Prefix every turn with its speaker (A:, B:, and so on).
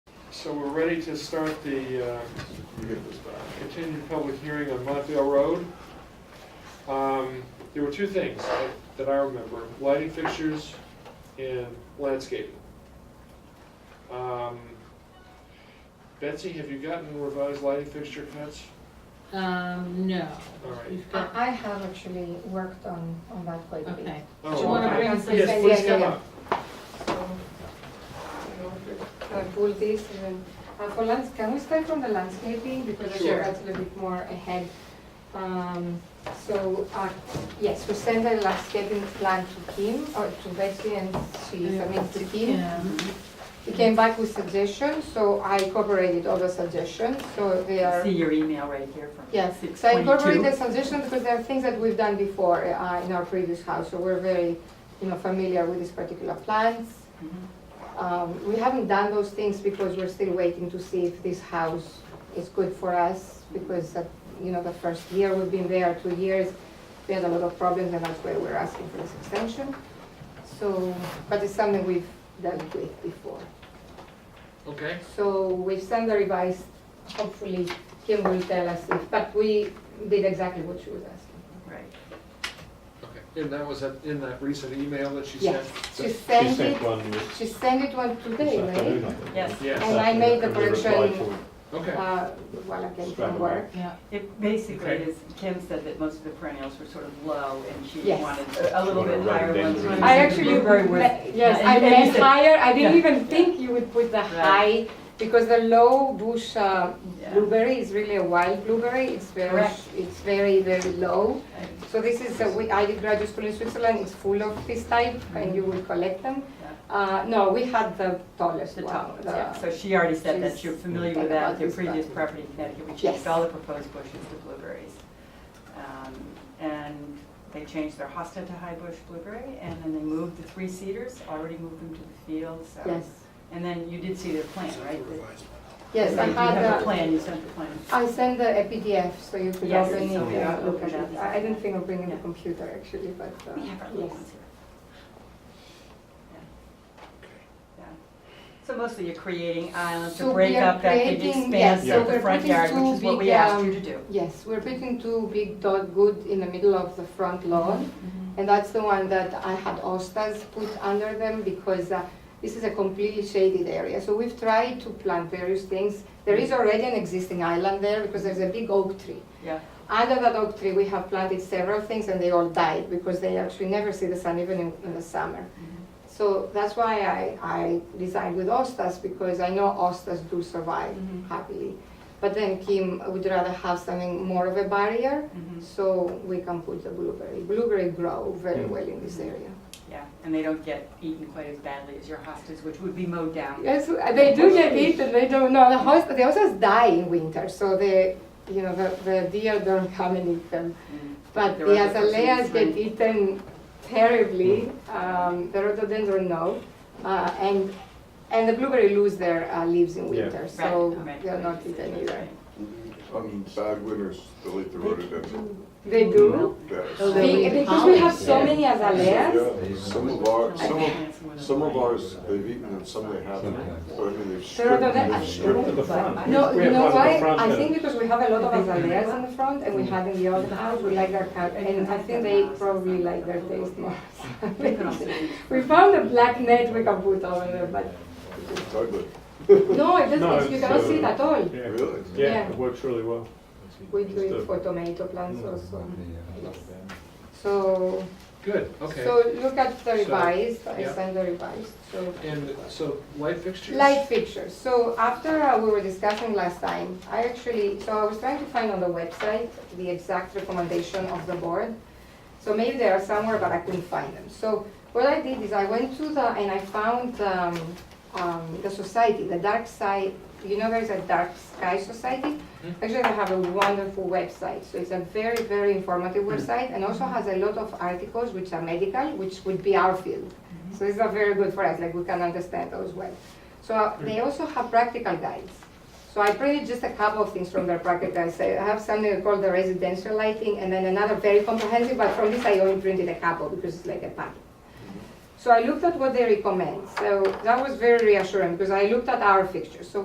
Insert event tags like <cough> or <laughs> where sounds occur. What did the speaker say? A: So we're ready to start the uh, continued public hearing on Montvale Road. Um, There were two things that- that I remember, lighting fixtures and landscaping. Um, Betsy, have you gotten revised lighting fixture cuts?
B: Um, no.
A: All right.
B: We've got-
C: I I have actually worked on, on that plate.
B: Okay.
A: Oh,
B: Do you wanna
A: okay.
B: bring us
C: Yeah,
A: Yes,
B: this?
C: yeah,
A: please come
C: yeah.
A: up.
C: So, you know, I pull this and then, uh, for lands, can we start from the landscaping? Because I think
A: Sure.
C: that's a little bit more ahead. Um, so, uh, yes, we sent the landscaping plan to Kim, or to Betsy and she submitted to Kim. He came back with suggestions, so I incorporated all the suggestions, so they are.
D: See your email right here from
C: Yes,
D: six
C: so I incorporate the
D: twenty-two.
C: suggestion because there are things that we've done before uh, in our previous house, so we're very, you know, familiar with these particular plans.
D: Mm-hmm,
C: Um, We haven't done those things because we're still waiting to see if this house is good for us, because, uh, you know, the first year we've been there, two years, we had a lot of problems, and that's why we're asking for this extension. So, but it's something we've dealt with before.
A: Okay,
C: So we send the revised, hopefully Kim will tell us if, but we did exactly what she was asking.
D: Right.
A: okay. And that was at- in that recent email that she
C: Yes,
A: sent?
C: she
E: She
C: sent
E: sent
C: it,
E: one this
C: she sent it one today,
E: this afternoon,
C: right?
E: I think.
D: Yes.
A: Yes,
C: And I made the
E: We replied
C: correction.
E: to it.
A: okay.
C: Uh, While I came from work.
B: Yeah.
D: It basically
A: Okay.
D: is, Kim said that most of the perennials were sort of low and she
C: Yes.
D: wanted a- a little
E: Wanna
D: bit
E: write it
D: higher
E: down.
D: ones.
C: I actually,
D: Blueberry was-
C: me- yes,
D: Yeah,
C: I
D: and- and you
C: meant
D: said-
C: higher, I didn't
D: Yeah.
C: even think you would put the high,
D: Right.
C: because the low bush uh,
D: Yeah.
C: blueberry is really a wild blueberry, it's very,
D: Correct.
C: it's very, very low.
D: And-
C: So this is, a- we- I did graduate school in Switzerland, it's full of this type, and you will collect them. Uh, no, we had the tallest
D: The
C: one.
D: top ones,
C: the-
D: yeah. So she already said that
C: she's
D: you're familiar
C: thinking
D: with
C: about
D: that, your
C: this
D: previous
C: button.
D: property in Connecticut, we
C: Yes.
D: changed all the proposed bushes to blueberries. Um, And they changed their hosta to high bush blueberry, and then they moved the three cedars, already moved them to the field, so.
C: Yes,
D: And then you did see their plan, right? The-
C: yes, I
D: Right, You have
C: had,
D: a
C: a-
D: plan, you sent the plan.
C: I sent the E a PDF, so you could
D: Yes,
C: open it,
D: so we are
C: and look at
D: looking at
C: it.
D: this.
C: I I didn't think of bringing the
D: Yeah.
C: computer actually, but, uh,
D: We have our little
C: yes.
D: ones here. Yeah. So mostly you're creating islands
C: So
D: to break
C: we are
D: up that big
C: creating- yes,
D: expanse
C: so
D: of the
C: we're
D: front
C: putting
D: yard,
C: two
D: which is what
C: big,
D: we asked you
C: um,
D: to do.
C: Yes, we're putting two big dot good in the middle of the front lawn, and that's the one that I had ostas put under them because uh, this is a completely shaded area. So we've tried to plant various things. There is already an existing island there because there's a big oak tree.
D: Yeah,
C: Under that oak tree, we have planted several things and they all died because they actually never see the sun even in, in the summer. So that's why I, I designed with ostas because I know ostas do survive
D: Mhm.
C: happily. But then Kim would rather have something more of a barrier,
D: Mhm.
C: so we can put the blueberry. Blueberry grow very
E: Mm.
C: well in this area.
D: yeah, and they don't get eaten quite as badly as your hostas, which would be mowed down.
C: Yes, they do get eaten. They don't know the horse. The horses die in winter, so they, you know, the, the deer don't come and eat them.
D: Mm.
C: But
D: The
C: the azaleas
D: rhododendrons,
C: get
D: right.
C: eaten terribly,
E: Mm.
C: um, the rhododendron no, uh, and, and the blueberry lose their uh, leaves in
E: Yeah.
C: winter,
D: Right,
C: so
D: right,
C: they're not
D: right,
C: eaten
D: right.
C: either.
F: On bad winters, delete the rhododendron.
C: They do,
F: Yes.
B: Oh,
C: We-
B: really?
C: because we have so
E: Yeah.
C: many azaleas,
F: Yeah, Some of our, some of,
D: Plants with a-
F: some of ours, they've eaten and some they haven't. But I mean, they've stripped,
C: rhododendron-
F: they've stripped
E: To
F: them.
E: the front.
C: no,
E: We
C: you
E: have
C: know
E: one at the
C: why?
E: front
C: I
E: and-
C: think because we have Mm-hmm. a lot of azaleas in the front, and we had in the old house, we like their cut, and I think they probably like their taste more.
D: They could also eat.
C: <laughs> We found a black net we can put over there, but,
F: It's ugly,
C: no, it
E: No,
C: doesn't, you
E: it's,
C: cannot
E: uh,
C: see it at all.
E: Yeah.
F: really.
E: Yeah,
C: Yeah.
E: it works really well.
C: We do
E: Still.
C: it for tomato plants
E: Mm.
C: also.
G: Yes.
C: So,
A: Good, okay.
C: so look at the
A: So,
C: revised, I
A: yeah.
C: sent the revised, so.
A: And so light fixtures?
C: Light fixtures, so after uh, we were discussing last time, I actually, so I was trying to find on the website the exact recommendation of the board. So maybe they are somewhere, but I couldn't find them. So what I did is I went to the, and I found um, um, the society, the dark side, you know, there's a dark sky society?
A: Mhm.
C: Actually, they have a wonderful website, so it's a very, very informative website, and also has a lot of articles which are medical, which would be our field. So these are very good for us, like, we can understand those well. So uh, they also have practical guides. So I printed just a couple of things from their practical guides. I have something called the residential lighting, and then another very comprehensive, but from this I only printed a couple, because it's like a packet. So I looked at what they recommend, so that was very reassuring, because I looked at our fixtures. So